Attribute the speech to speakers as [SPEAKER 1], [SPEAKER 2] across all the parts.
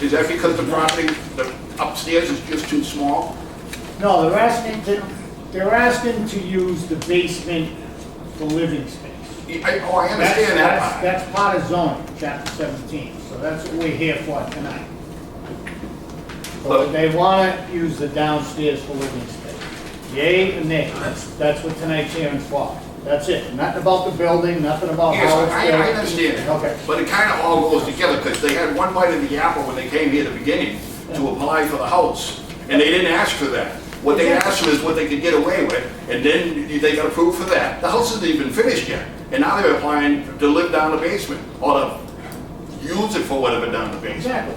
[SPEAKER 1] Is that because the property, the upstairs is just too small?
[SPEAKER 2] No, they're asking to, they're asking to use the basement for living space.
[SPEAKER 1] I- Oh, I understand
[SPEAKER 2] That's-
[SPEAKER 1] that part.
[SPEAKER 2] That's that's part of zoning, chapter seventeen, so that's what we're here for tonight. But they wanna use the downstairs for living space. Yay and nay, that's what tonight's hearing's for. That's it, nothing about the building, nothing about
[SPEAKER 1] Yes,
[SPEAKER 2] how it's
[SPEAKER 1] I, I
[SPEAKER 2] there.
[SPEAKER 1] understand
[SPEAKER 2] Okay.
[SPEAKER 1] that. But it kind of all goes together, because they had one bite of the apple when they came here at the beginning to apply for the house, and they didn't ask for that. What they asked for is what they could get away with, and then they got approved for that. The house isn't even finished yet, and now they're applying to live down the basement, or to use it for whatever down the basement.
[SPEAKER 2] Exactly.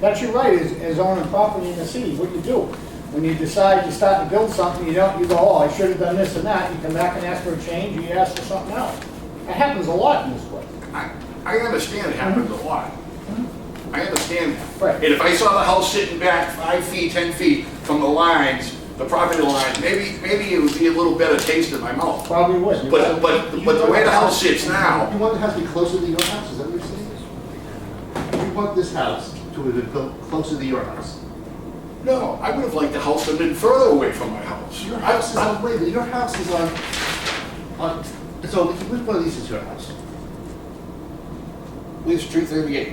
[SPEAKER 2] That's your right as, as owning property in the city, what you do. When you decide you start to build something, you don't, you go, oh, I should have done this and that, you come back and ask for a change, or you ask for something else. That happens a lot in this place.
[SPEAKER 1] I, I understand it happens a lot. I understand that.
[SPEAKER 2] Right.
[SPEAKER 1] And if I saw the house sitting back five feet, 10 feet from the lines, the property line, maybe, maybe it would be a little better taste in my mouth.
[SPEAKER 2] Probably would.
[SPEAKER 1] But, but, but the way the house sits
[SPEAKER 3] You
[SPEAKER 1] now,
[SPEAKER 3] want the house to be closer to your house, is that what you're saying? You want this house to have been built closer to your house.
[SPEAKER 1] no, I would have liked the house to have been further away from my house.
[SPEAKER 3] Your
[SPEAKER 1] I-
[SPEAKER 3] house is on, wait, a minute, your house is on, on, so which one of these is your house?
[SPEAKER 1] We have street 38.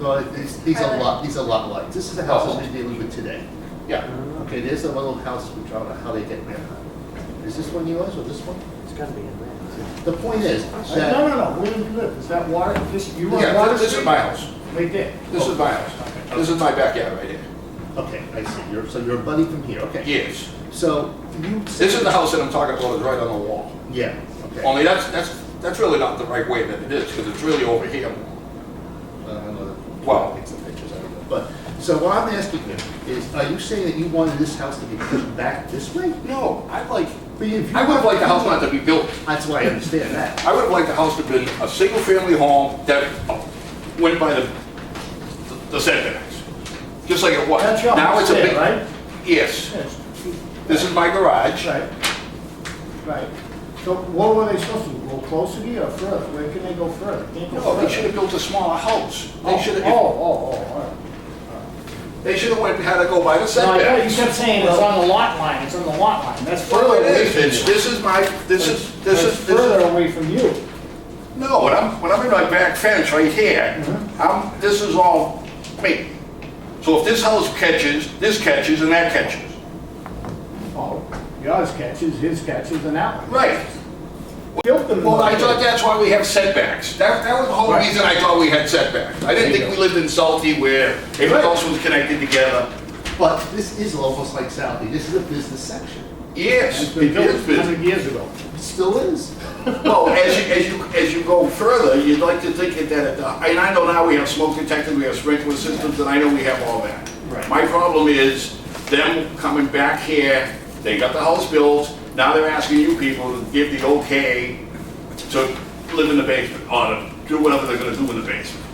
[SPEAKER 3] No, these, these are lot, these are lot lines, this is the
[SPEAKER 1] Oh.
[SPEAKER 3] house that we're dealing with today.
[SPEAKER 1] Yeah.
[SPEAKER 3] Okay, there's the one little house, we don't know how they get there. Is this one yours or this one?
[SPEAKER 4] It's gotta be in there.
[SPEAKER 3] The point is
[SPEAKER 2] No,
[SPEAKER 3] that,
[SPEAKER 2] no, no, where do you live? Is that water, this, you want
[SPEAKER 5] Yeah,
[SPEAKER 2] water?
[SPEAKER 5] this this is my house.
[SPEAKER 2] Right there.
[SPEAKER 5] This is my house. This is my backyard right here.
[SPEAKER 3] okay, I see, you're, so you're a buddy from here, okay.
[SPEAKER 5] Yes.
[SPEAKER 3] So you.
[SPEAKER 5] This is the house that I'm talking about, is right on the wall.
[SPEAKER 3] Yeah, okay.
[SPEAKER 5] Only that's, that's, that's really not the right way that it is, because it's really over here.
[SPEAKER 3] Well, Uh, I know that-
[SPEAKER 5] Well, take some pictures, I don't know.
[SPEAKER 3] But, so what I'm asking you is, are you saying that you wanted this house to be pushed back this way?
[SPEAKER 5] No, I'd like,
[SPEAKER 3] But if you-
[SPEAKER 5] I would have liked the house not to be built.
[SPEAKER 3] That's why I understand that.
[SPEAKER 5] I would have liked the house to have been a single-family home that went by the, the setbacks. Just like it was.
[SPEAKER 2] That's your
[SPEAKER 5] Now
[SPEAKER 2] house
[SPEAKER 5] it's a
[SPEAKER 2] there,
[SPEAKER 5] big-
[SPEAKER 2] right?
[SPEAKER 5] Yes.
[SPEAKER 2] Yes.
[SPEAKER 5] This is my garage.
[SPEAKER 2] Right. Right. So what were they supposed to, do? go closer to you or further? Where can they go further? Can't go
[SPEAKER 5] No, Oh, they
[SPEAKER 2] further.
[SPEAKER 5] should have built a smaller house. They
[SPEAKER 2] Oh,
[SPEAKER 5] should
[SPEAKER 2] Oh, oh,
[SPEAKER 5] have,
[SPEAKER 2] oh, all right.
[SPEAKER 5] they should have went, had to go by the
[SPEAKER 2] No, I
[SPEAKER 5] setbacks.
[SPEAKER 2] know, you kept saying it's on the lot line, it's on the lot line, that's
[SPEAKER 5] Well,
[SPEAKER 2] further
[SPEAKER 5] it
[SPEAKER 2] away
[SPEAKER 5] is,
[SPEAKER 2] from
[SPEAKER 5] it's,
[SPEAKER 2] you.
[SPEAKER 5] this is my, this is, this
[SPEAKER 2] That's
[SPEAKER 5] is, this
[SPEAKER 2] further
[SPEAKER 5] is,
[SPEAKER 2] away from you.
[SPEAKER 5] no, when I'm, when I'm in my back fence right here,
[SPEAKER 2] Mm-hmm.
[SPEAKER 5] I'm, this is all me. So if this house catches, this catches and that catches.
[SPEAKER 2] Oh, yours catches, his catches, and that one.
[SPEAKER 5] Right.
[SPEAKER 2] Built them.
[SPEAKER 5] Well, I thought that's why we have setbacks. That, that was the whole
[SPEAKER 2] Right.
[SPEAKER 5] reason I thought we had setbacks. I didn't think we lived in Salty where every
[SPEAKER 2] Right.
[SPEAKER 5] house was connected together.
[SPEAKER 3] But this is almost like Southie, this is a business section.
[SPEAKER 5] Yes,
[SPEAKER 2] It's
[SPEAKER 5] it
[SPEAKER 2] been built
[SPEAKER 5] is business.
[SPEAKER 2] hundred years ago.
[SPEAKER 3] It still is.
[SPEAKER 1] Well, as you, as you, as you go further, you'd like to think that, it, uh, and I know now we have smoke detectors, we have sprinkler systems, and I know we have all that.
[SPEAKER 2] Right.
[SPEAKER 1] My problem is them coming back here, they got the house built, now they're asking you people to give the okay to live in the basement, or to do whatever they're gonna do in the basement.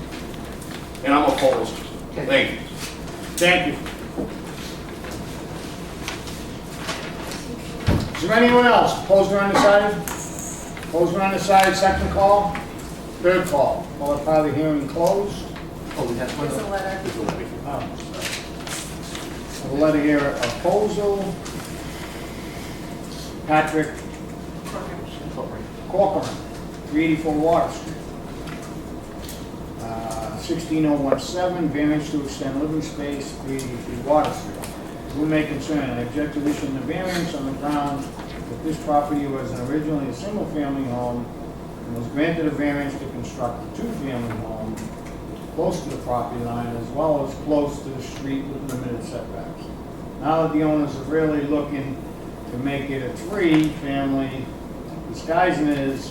[SPEAKER 1] And I'm opposed. Thank you.
[SPEAKER 2] Thank you. Is there anyone else? Opposed or undecided? Opposed or undecided, second call, third call. All the part of the hearing closed.
[SPEAKER 3] Oh, we have one.
[SPEAKER 4] There's a letter.
[SPEAKER 3] There's a letter here.
[SPEAKER 2] A letter here, proposal. Patrick Corcoran, 384 Water Street. Uh, 16017, variance to extend living space, 383 Water Street. Who may concern, I object to issuing the variance on the grounds that this property was originally a single-family home and was granted a variance to construct a two-family home close to the property line as well as close to the street with limited setbacks. Now that the owners are really looking to make it a three-family, disguising it as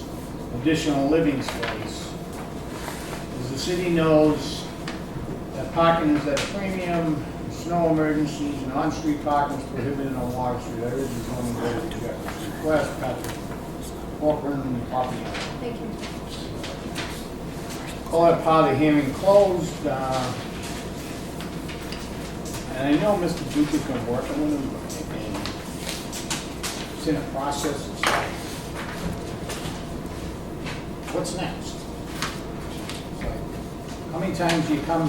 [SPEAKER 2] additional living space. As the city knows, that parking is at a premium, snow emergencies, and on-street parking is prohibited on Water Street. I urge the zoning board to reject this request, Patrick Corcoran, and the property owner.
[SPEAKER 4] Thank you.
[SPEAKER 2] Call that part of the hearing closed. uh, And I know Mr. Duke has been working with him, and it's in a process. What's next? It's like, How many times do you come